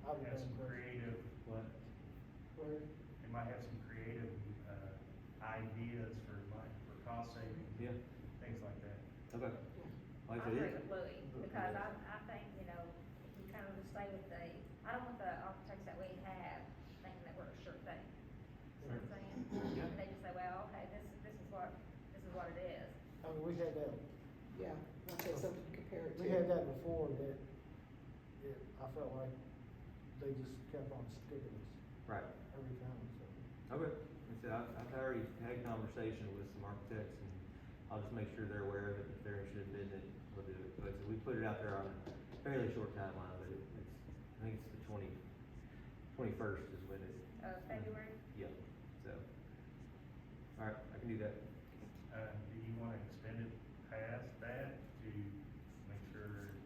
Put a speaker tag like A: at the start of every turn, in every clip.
A: uh,
B: bully, because I, I think, you know, you kind of stay with the, I don't want the architects that we have thinking that we're a sure thing. See what I'm saying?
C: Yeah.
B: And they just say, well, okay, this, this is what, this is what it is.
D: I mean, we had that,
E: Yeah, like that's something to compare it to.
D: we had that before, that, it, I felt like they just kept on sticking us
C: Right,
D: every time, so.
C: okay, and so I've, I've already had a conversation with some architects, and I'll just make sure they're aware of it, if they're interested in bidding it, we'll do it, but we put it out there on a fairly short timeline, but it- it's, I think it's the twenty, twenty-first is when it.
B: Uh, February?
C: Yeah, so, alright, I can do that.
A: Uh, do you wanna extend it past that to make sure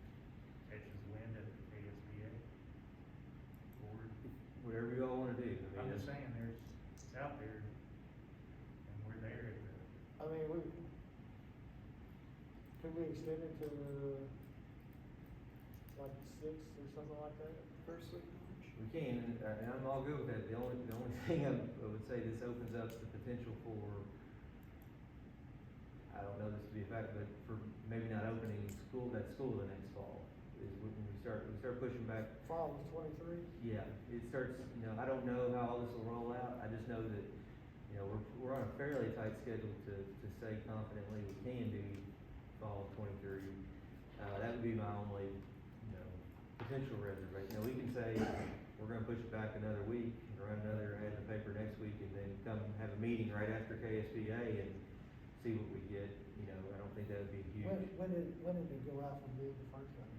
A: it catches wind at the KSBA? Board?
C: Whatever you all wanna do, I mean.
A: I'm just
C: it's-
A: saying, there's, it's out there, and we're there at the,
D: I mean, we, could we extend it to, like, six or something like that?
E: First week of
C: We can, uh, and I'm all good with that, the only, the only thing I I would say, this opens up the potential for, I don't know this to be a fact, but for maybe not opening school, that school the next fall, is when we start, we start pushing back.
D: Fall of twenty-three?
C: Yeah, it starts, you know, I don't know how all this will roll out, I just know that, you know, we're, we're on a fairly tight schedule to, to say confidently we can do fall twenty-three. Uh, that would be my only, you know, potential reservation. Now, we can say, we're gonna push it back another week, and run another ad in the paper next week, and then come have a meeting right after KSBA and see what we get, you know, I don't think that would be
D: When,
C: huge.
D: when did, when did it go out for bid the first time?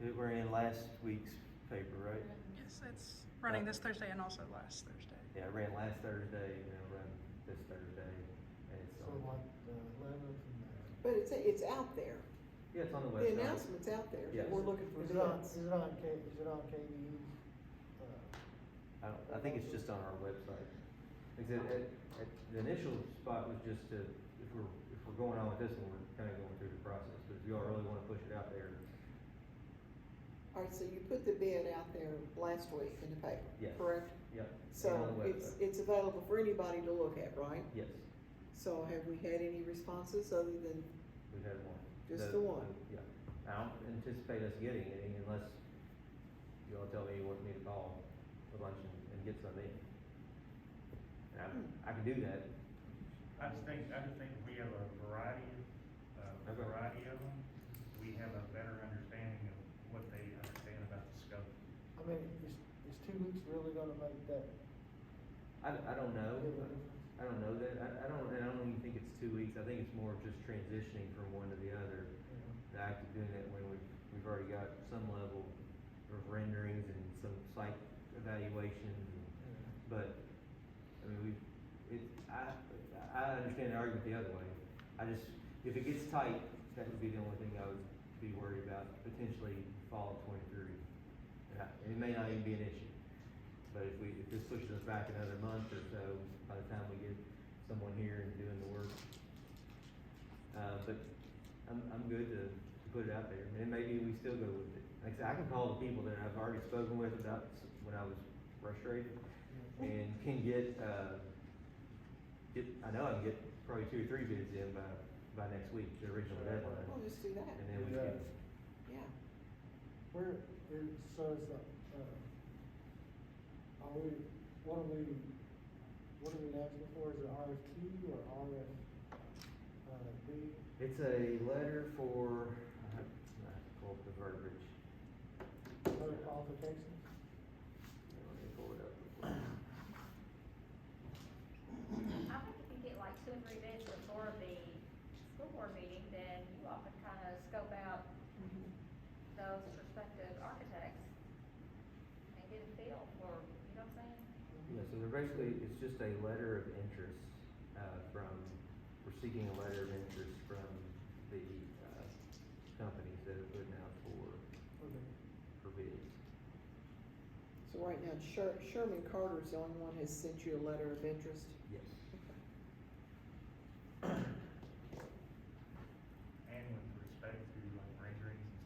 C: We We're in last week's paper, right?
F: Yes, it's running this Thursday and also last Thursday.
C: Yeah, I ran last Thursday, and I'll run this Thursday, and it's
D: So
C: on,
D: like the eleventh and
E: But it's, it's out there,
C: yeah, Oh, it's on the
E: the
C: website.
E: announcement's out there,
C: Yes.
E: that we're looking for
D: Is it on,
E: bids.
D: is it on K, is it on KBU's,
C: I
D: uh,
C: don't, I think it's just on our website. Except, at, at, the initial spot was just to, if we're, if we're going on with this one, we're kinda going through the process, but if y'all really wanna push it out there,
E: Alright, so you put the bid out there last week in the paper,
C: Yes.
E: correct?
C: yeah. it's on
E: So
C: the
E: it's,
C: website.
E: it's available for anybody to look at, right?
C: Yes,
E: So have we had any responses other than,
C: we've had one.
E: Just the one?
C: Yeah, I don't anticipate us getting any unless y'all tell me you want me to call for lunch and, and get some in. And
E: Hmm.
C: I, I can do that,
A: I just think, I just think we have a variety of, a
C: Okay.
A: variety of them. We have a better understanding of what they understand about the scope.
D: I mean, is, is two weeks really gonna make that?
C: I, I don't know.
D: big of a difference?
C: I don't know that. I, I don't, and I don't even think it's two weeks. I think it's more of just transitioning from one to the other.
D: Yeah.
C: The act of doing that when we've, we've already got some level of renderings and some site evaluations. and- But, I mean, we've, it, I, I understand the argument the other way. I just, if it gets tight, that would be the only thing I would be worried about, potentially fall of twenty-three. And I- It may not even be an issue. But if we, if this pushes us back another month or so, by the time we get someone here and doing the work. Uh, but I'm, I'm good to, to put it out there, and maybe we still go with it. Like I said, I can call the people that I've already spoken with about s- when I was frustrated, and can get, uh, get, I know I can get probably two or three bids in by, by next week, the original deadline.
E: well, just "Oh, do that,
C: And then we can,
E: yeah.
D: Where, is, so it's, uh, uh, are we, what are we, what are we asking for, is it RFQ or RF, uh, B?
C: it's a letter for, I have I have to pull up the verbiage.
D: other qualifications?
C: Let me pull it up real quick.
B: I think if you get like two or three bids before the school board meeting, then you all can kind of scope out those prospective architects and get a feel for, you know what I'm saying?
C: Yeah, so they're basically, it's just a letter of interest, uh, from, we're seeking a letter of interest from the, uh, companies that are putting out for,
D: Okay.
C: for bids.
E: So right now, Sher- Sherman Carter's the only one has sent you a letter of interest.